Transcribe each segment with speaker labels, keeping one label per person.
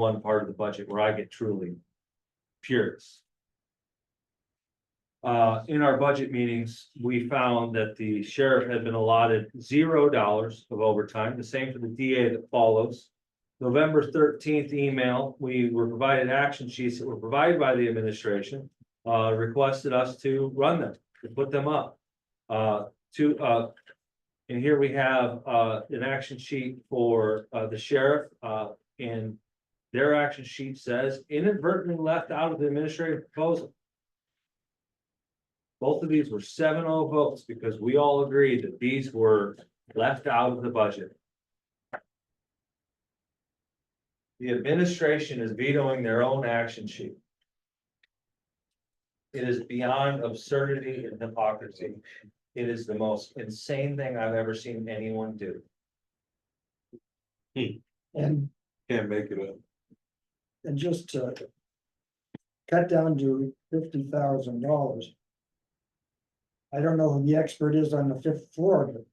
Speaker 1: one part of the budget where I get truly curious. Uh, in our budget meetings, we found that the sheriff had been allotted zero dollars of overtime, the same for the DA that follows. November thirteenth email, we were provided action sheets that were provided by the administration, uh, requested us to run them, to put them up. Uh, to, uh, and here we have, uh, an action sheet for, uh, the sheriff, uh, and their action sheet says inadvertently left out of the administrative proposal. Both of these were 7-0 votes because we all agreed that these were left out of the budget. The administration is vetoing their own action sheet. It is beyond absurdity and hypocrisy. It is the most insane thing I've ever seen anyone do.
Speaker 2: And,
Speaker 3: Can't make it up.
Speaker 2: and just to. Cut down to fifty thousand dollars. I don't know who the expert is on the fifth floor, but.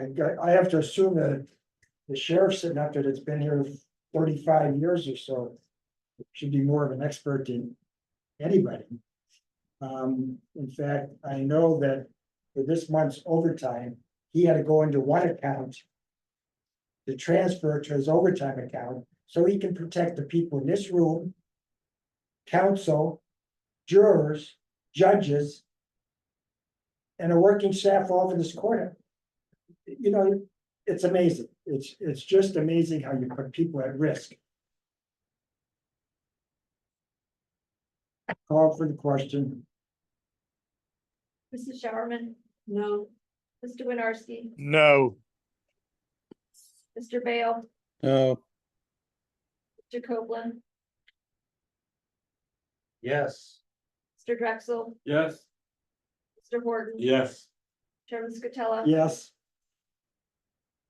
Speaker 2: I got- I have to assume that the sheriff sitting up there that's been here thirty-five years or so. Should be more of an expert than anybody. Um, in fact, I know that for this month's overtime, he had to go into one account to transfer to his overtime account, so he can protect the people in this room. Counsel, jurors, judges. And a working staff all over this corner. You know, it's amazing, it's, it's just amazing how you put people at risk. Call for the question,
Speaker 4: Mrs. Showerman? No. Mr. Winarski?
Speaker 5: No.
Speaker 4: Mr. Bale?
Speaker 5: No.
Speaker 4: Mr. Copeland?
Speaker 1: Yes.
Speaker 4: Mr. Drexel?
Speaker 1: Yes.
Speaker 4: Mr. Horton?
Speaker 3: Yes.
Speaker 4: Chairman Scatella?
Speaker 2: yes,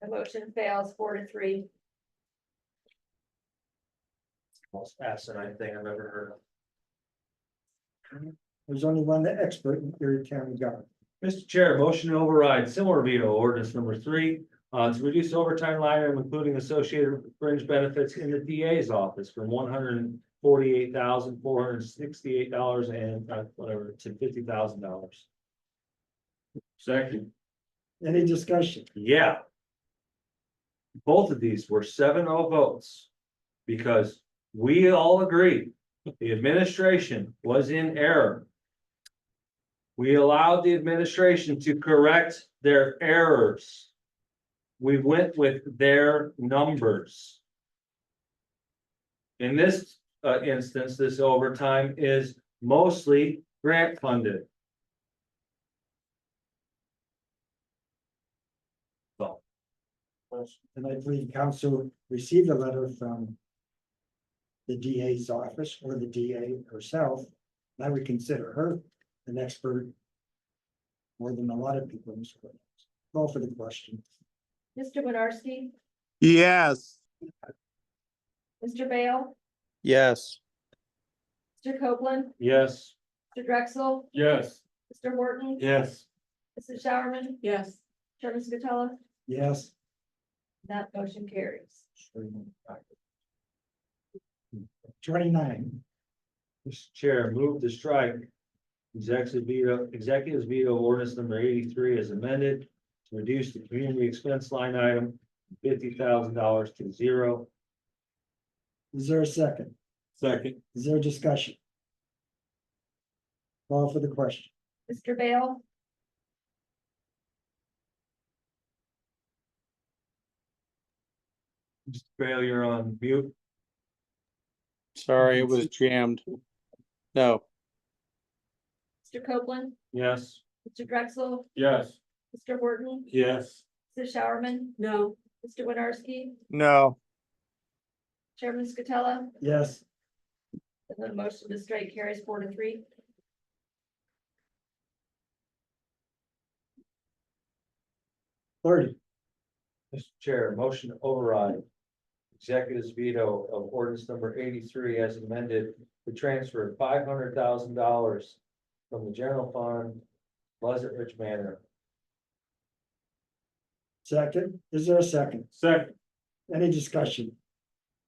Speaker 4: The motion fails four to three.
Speaker 1: Most asinine thing I've ever heard. of.
Speaker 2: there's only one expert in Erie County government,
Speaker 1: Mr. Chair, motion to override similar veto ordinance number three, uh, to reduce overtime line item, including associated fringe benefits in the DA's office from one hundred and forty-eight thousand, four hundred and sixty-eight dollars and uh, whatever, to fifty thousand dollars. Second.
Speaker 2: any discussion?
Speaker 1: Yeah. Both of these were 7-0 votes. Because we all agreed, the administration was in error. We allowed the administration to correct their errors. We went with their numbers. In this uh instance, this overtime is mostly grant funded.
Speaker 2: And I believe council received a letter from. The DA's office or the DA herself, and I would consider her an expert. More than a lot of people in this court. Call for the question,
Speaker 4: Mr. Winarski?
Speaker 5: Yes.
Speaker 4: Mr. Bale?
Speaker 5: Yes.
Speaker 4: Mr. Copeland?
Speaker 1: Yes.
Speaker 4: Mr. Drexel?
Speaker 3: Yes.
Speaker 4: Mr. Horton?
Speaker 3: Yes.
Speaker 4: Mrs. Showerman? Yes. Chairman Scatella?
Speaker 2: yes?
Speaker 4: That motion carries.
Speaker 2: Twenty-nine,
Speaker 1: Mr. Chair, move to strike executive veto, executive veto ordinance number eighty-three as amended to reduce the community expense line item fifty thousand dollars to zero.
Speaker 2: is there a second,
Speaker 3: Second.
Speaker 2: is there a discussion? Call for the question,
Speaker 4: Mr. Bale?
Speaker 1: Mr. Bale, you're on mute.
Speaker 5: Sorry, it was jammed. No.
Speaker 4: Mr. Copeland?
Speaker 1: Yes.
Speaker 4: Mr. Drexel?
Speaker 3: Yes.
Speaker 4: Mr. Horton?
Speaker 3: Yes.
Speaker 4: Mrs. Showerman? No. Mr. Winarski?
Speaker 5: No.
Speaker 4: Chairman Scatella?
Speaker 2: yes,
Speaker 4: And the motion to strike carries four to three.
Speaker 2: thirty,
Speaker 1: Mr. Chair, motion to override executive's veto of ordinance number eighty-three as amended to transfer five hundred thousand dollars from the general fund Pleasant Ridge Manor.
Speaker 2: second, is there a second,
Speaker 3: Second.
Speaker 2: any discussion?